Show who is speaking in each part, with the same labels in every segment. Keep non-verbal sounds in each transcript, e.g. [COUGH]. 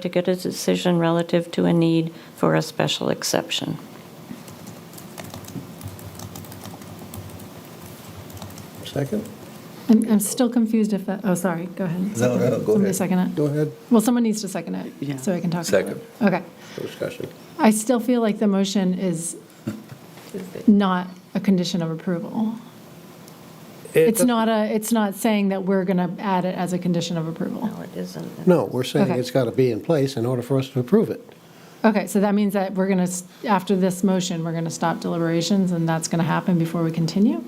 Speaker 1: to get a decision relative to a need for a special exception.
Speaker 2: Second?
Speaker 3: I'm, I'm still confused if that, oh, sorry, go ahead.
Speaker 2: No, no, go
Speaker 3: Somebody
Speaker 2: ahead.
Speaker 3: second it?
Speaker 2: Go ahead,
Speaker 3: Well, someone needs to second
Speaker 4: Yeah.
Speaker 3: it, so I can talk about
Speaker 2: Second.
Speaker 3: it. Okay.
Speaker 2: No discussion.
Speaker 3: I still feel like the motion is not a condition of approval. It's not a, it's not saying that we're going to add it as a condition of approval.
Speaker 1: No, it isn't.
Speaker 2: No, we're saying
Speaker 3: Okay.
Speaker 2: it's got to be in place in order for us to approve it.
Speaker 3: Okay, so that means that we're going to, after this motion, we're going to stop deliberations, and that's going to happen before we continue?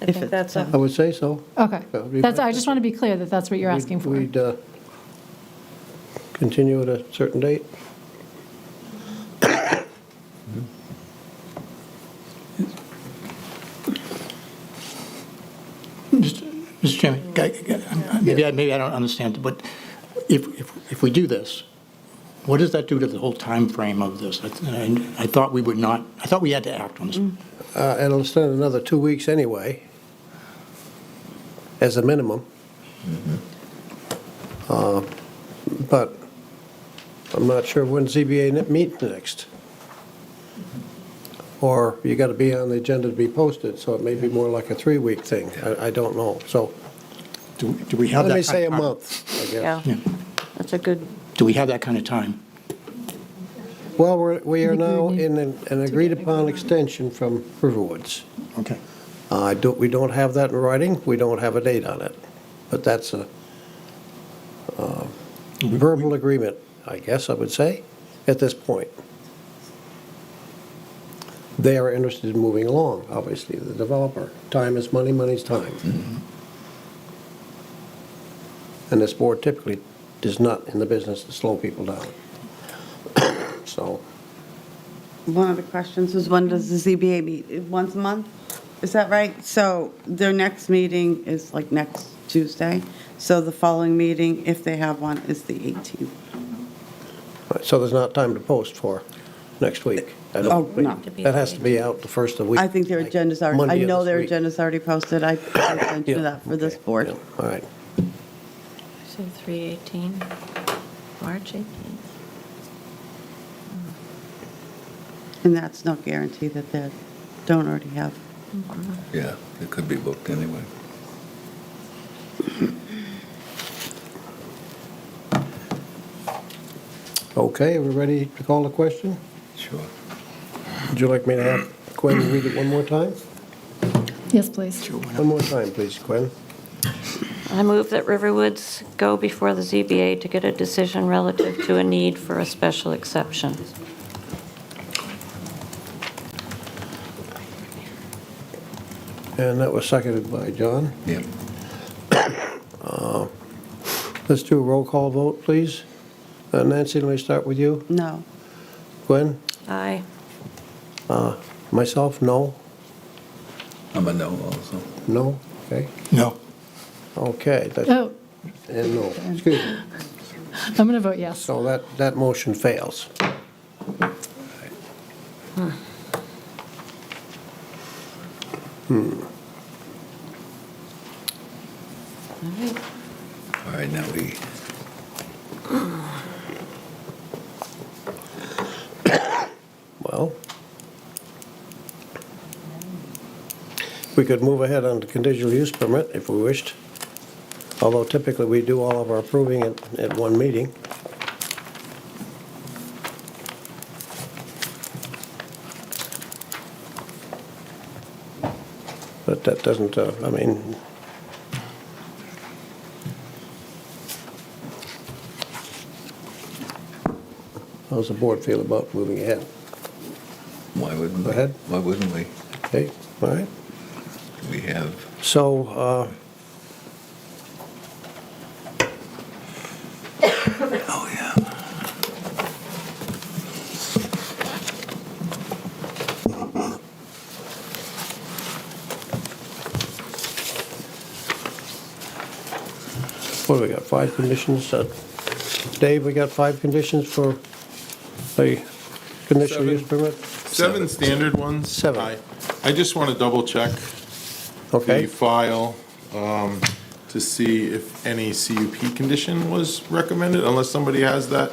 Speaker 1: I
Speaker 4: If
Speaker 1: think
Speaker 4: it's,
Speaker 1: that's
Speaker 2: I
Speaker 1: a,
Speaker 2: would say so.
Speaker 3: Okay.
Speaker 2: That would be
Speaker 3: That's,
Speaker 2: my-
Speaker 3: I just want to be clear that that's what you're asking
Speaker 2: We'd- We'd
Speaker 3: for.
Speaker 2: uh, continue at a certain date.
Speaker 5: Mr. Chairman, g- g- I'm- maybe I, maybe I don't understand, but if, if, if we do this, what does that do to the whole time frame of this? I, th- I thought we would not, I thought we had to act on this.
Speaker 2: Uh, and It'll stand another two weeks anyway, as a minimum. Uh, But I'm not sure when ZBA ne- meets next. Or you got to be on the agenda to be posted, so it may be more like a three-week thing. I, I don't know, so
Speaker 5: Do, do we have that?
Speaker 2: let me
Speaker 5: ki-
Speaker 2: say a month, I
Speaker 1: yeah,
Speaker 2: guess.
Speaker 1: that's a good,
Speaker 5: Do we have that kind of time?
Speaker 2: Well, we're, we are
Speaker 3: I think we
Speaker 2: now
Speaker 3: need
Speaker 2: in an an agreed-upon extension from Riverwoods.
Speaker 5: Okay.
Speaker 2: Uh, I don't, we don't have that in writing, we don't have a date on it, but that's a uh, verbal agreement, I guess I would say, at this point. They are interested in moving along, obviously, the developer. Time is money, money's time. And this board typically is not in the business to slow people down. [COUGHS] So,
Speaker 4: one of the questions was when does the ZBA meet? Once a month? Is that right? So their next meeting is like next Tuesday. So the following meeting, if they have one, is the 18th.
Speaker 2: so there's not time to post for next week. I don't
Speaker 4: Oh,
Speaker 2: think.
Speaker 4: no.
Speaker 1: To be
Speaker 2: That has to be out the first of the week.
Speaker 4: I think their
Speaker 2: like
Speaker 4: agenda's
Speaker 2: Monday
Speaker 4: already, I
Speaker 2: of
Speaker 4: know
Speaker 2: this
Speaker 4: their
Speaker 2: week.
Speaker 4: agenda's already
Speaker 2: [COUGHS]
Speaker 4: posted. I I sent
Speaker 2: Yeah,
Speaker 4: you that for this
Speaker 2: okay,
Speaker 4: board.
Speaker 2: yeah, All right.
Speaker 1: so 318, March 18th.
Speaker 4: And that's no guarantee that they don't already have.
Speaker 6: Yeah, it could be booked anyway.
Speaker 2: Okay, are we ready to call the question?
Speaker 6: Sure.
Speaker 2: Would you like me to have Quinn read it one more time?
Speaker 3: Yes, please.
Speaker 2: One more time, please, Quinn.
Speaker 1: I move that Riverwoods go before the ZBA to get a decision relative to a need for a special exception.
Speaker 2: And that was seconded by John.
Speaker 6: Yep.
Speaker 2: Let's do a roll call vote, please. Uh, Nancy, let me start with you.
Speaker 4: No.
Speaker 2: Quinn?
Speaker 1: Aye.
Speaker 2: Uh, Myself, no,
Speaker 6: I'm a no also.
Speaker 2: no, okay?
Speaker 5: No.
Speaker 2: Okay, that's,
Speaker 3: Oh,
Speaker 2: and no, excuse me.
Speaker 3: I'm going to vote yes.
Speaker 2: So that, that motion fails.
Speaker 1: All right.
Speaker 6: All right, now we,
Speaker 2: Well, we could move ahead on the conditional use permit if we wished, although typically we do all of our approving at, at one meeting. But that doesn't, uh, I mean, how's the board feel about moving ahead?
Speaker 6: why wouldn't?
Speaker 2: Go ahead.
Speaker 6: Why wouldn't we?
Speaker 2: Okay, all right.
Speaker 6: We have,
Speaker 2: So, uh,
Speaker 6: oh, yeah.
Speaker 2: what do we got, five conditions? Uh, Dave, we got five conditions for the conditional
Speaker 7: Seven.
Speaker 2: use permit?
Speaker 7: Seven standard ones.
Speaker 2: Seven.
Speaker 7: I- I just want to double check the
Speaker 2: Okay,
Speaker 7: file um, to see if any CUP condition was recommended, unless somebody has that.